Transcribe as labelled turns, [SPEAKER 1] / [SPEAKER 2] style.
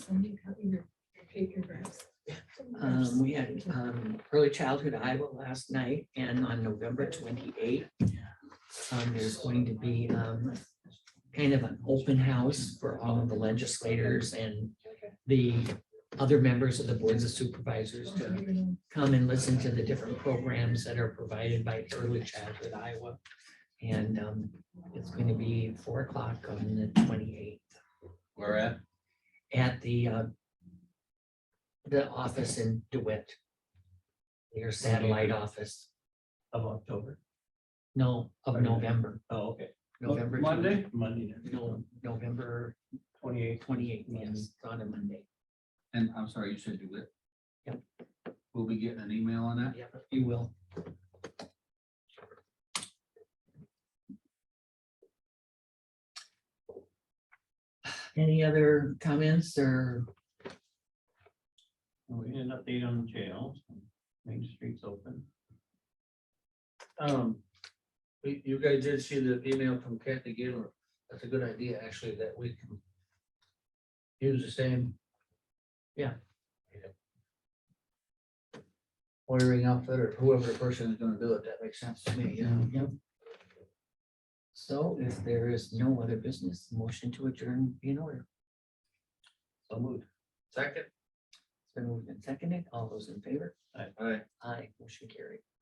[SPEAKER 1] somebody cutting your your paper grass?
[SPEAKER 2] Um, we had, um, early childhood Iowa last night and on November twenty-eighth. Um, there's going to be, um, kind of an open house for all of the legislators and the other members of the boards of supervisors to come and listen to the different programs that are provided by early childhood Iowa. And, um, it's going to be four o'clock on the twenty-eighth
[SPEAKER 3] Where at?
[SPEAKER 2] at the uh, the office in DeWitt. Your satellite office
[SPEAKER 4] Of October.
[SPEAKER 2] no, of November,
[SPEAKER 4] Oh, okay.
[SPEAKER 2] November.
[SPEAKER 4] Monday? Monday.
[SPEAKER 2] No, November
[SPEAKER 4] Twenty-eighth.
[SPEAKER 2] twenty-eighth, yes, on a Monday.
[SPEAKER 3] And I'm sorry, you said DeWitt?
[SPEAKER 2] Yep.
[SPEAKER 3] We'll be getting an email on that?
[SPEAKER 2] Yep, you will. Any other comments or
[SPEAKER 4] We had an update on the jail. Main Street's open.
[SPEAKER 5] Um, you, you guys did see the email from Kathy Gaylor. That's a good idea, actually, that we can use the same.
[SPEAKER 2] Yeah.
[SPEAKER 5] Wiring outfit or whoever the person is gonna do it, that makes sense to me, yeah.
[SPEAKER 2] Yep. So if there is no other business, motion to adjourn be in order.
[SPEAKER 4] So moved.
[SPEAKER 5] Second,
[SPEAKER 2] It's been moved and seconded. All those in favor?
[SPEAKER 5] all right.
[SPEAKER 2] Aye, motion carried.